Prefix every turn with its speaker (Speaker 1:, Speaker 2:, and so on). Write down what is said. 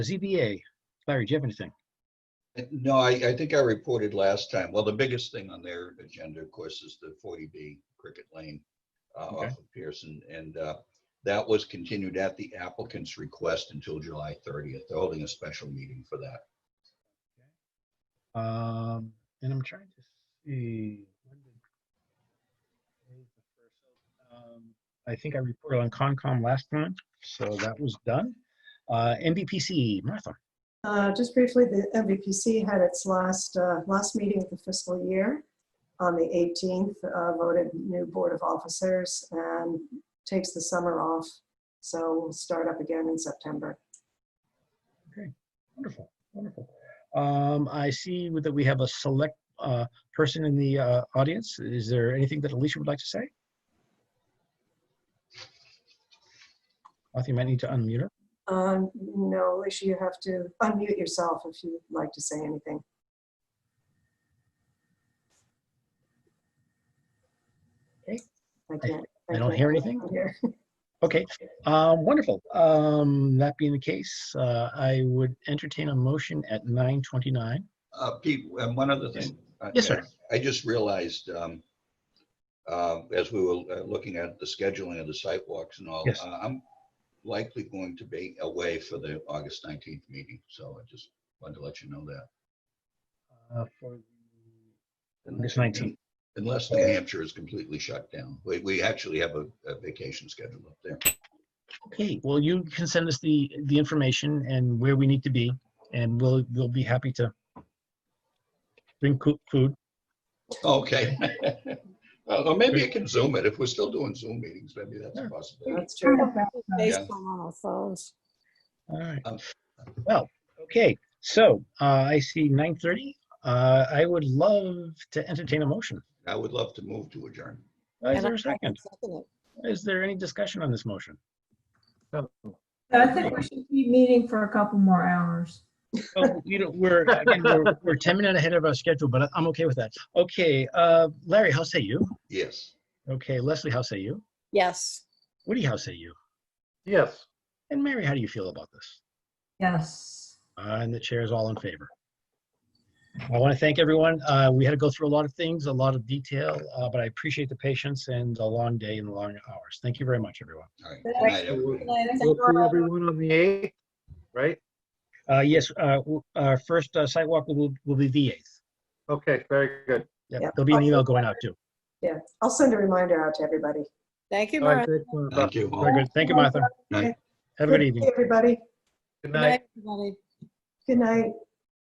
Speaker 1: ZBA, Larry, do you have anything?
Speaker 2: No, I, I think I reported last time. Well, the biggest thing on their agenda, of course, is the 40B Cricket Lane uh,
Speaker 1: Okay.
Speaker 2: off of Pearson. And uh, that was continued at the applicant's request until July 30th. They're holding a special meeting for that.
Speaker 1: Um, and I'm trying to see. when did- Um, I think I reported on Concom last time, so that was done. Uh, MBPC, Martha.
Speaker 3: Uh, Just briefly, the MVPC had its last, uh, last meeting of the fiscal year on the 18th, uh, voted new Board of Officers and takes the summer off. So we'll start up again in September.
Speaker 1: Wonderful, wonderful. Um, I see that we have a select, uh, person in the, uh, audience. Is there anything that Alicia would like to say? Martha, you might need to unmute her.
Speaker 3: Um, No, Alicia, you have to unmute yourself if you'd like to say anything.
Speaker 1: Okay.
Speaker 3: I can't.
Speaker 1: I don't
Speaker 3: can't
Speaker 1: hear anything.
Speaker 3: hear.
Speaker 1: Okay, um, wonderful. Um, that being the case, uh, I would entertain a motion at nine twenty-nine.
Speaker 2: Uh, Pete, and one other thing. Uh,
Speaker 1: Yes, sir.
Speaker 2: I just realized, um, uh, as we were uh, looking at the scheduling of the site walks and all,
Speaker 1: Yes.
Speaker 2: uh, I'm likely going to be away for the August 19th meeting. So I just wanted to let you know that.
Speaker 1: Uh, for the August
Speaker 2: Unless
Speaker 1: 19th.
Speaker 2: Unless New Hampshire is completely shut down. We, we actually have a, a vacation schedule up there.
Speaker 1: Okay, well, you can send us the, the information and where we need to be, and we'll, we'll be happy to bring coo- food.
Speaker 2: Okay. Well, Or maybe I can Zoom it. If we're still doing Zoom meetings, maybe that's a possibility.
Speaker 3: That's
Speaker 4: Mm-hmm.
Speaker 3: true.
Speaker 4: Baseball on our phones.
Speaker 1: All right.
Speaker 2: Um,
Speaker 1: Well, okay, so, uh, I see nine thirty. Uh, I would love to entertain a motion.
Speaker 2: I would love to move to adjourn.
Speaker 1: Uh,
Speaker 4: And
Speaker 1: Is
Speaker 4: I-
Speaker 1: there a second?
Speaker 4: Second it.
Speaker 1: Is there any discussion on this motion?
Speaker 5: I think we should be meeting for a couple more hours.
Speaker 1: Well, you know, Oh, we're, again, we're, we're 10 minutes ahead of our schedule, but I- I'm okay with that. Okay, uh, Larry, how say you?
Speaker 2: Yes.
Speaker 1: Okay, Leslie, how say you?
Speaker 4: Yes.
Speaker 1: Woody, how say you?
Speaker 6: Yes.
Speaker 1: And Mary, how do you feel about this?
Speaker 5: Yes.
Speaker 1: Uh, and the chair is all in favor. I want to thank everyone. Uh, we had to go through a lot of things, a lot of detail, uh, but I appreciate the patience and the long day and the long hours. Thank you very much, everyone.
Speaker 2: All right. Good
Speaker 5: Thanks.
Speaker 2: night, everybody.
Speaker 6: We'll see everyone on the 8th, right?
Speaker 1: Uh, yes, uh, w- our first uh, sidewalk will, will be the 8th.
Speaker 6: Okay, very good.
Speaker 1: Yep,
Speaker 3: Yeah.
Speaker 1: there'll be an email going out too.
Speaker 3: Yeah, I'll send a reminder out to everybody.
Speaker 4: Thank you,
Speaker 6: All right,
Speaker 4: Martha.
Speaker 6: thanks, Martha.
Speaker 2: Thank you. all.
Speaker 1: Very good. Thank you, Martha.
Speaker 2: Night.
Speaker 1: Have a good evening.
Speaker 3: Everybody,
Speaker 6: Good
Speaker 4: Good
Speaker 6: night.
Speaker 4: night, everybody.
Speaker 3: good night.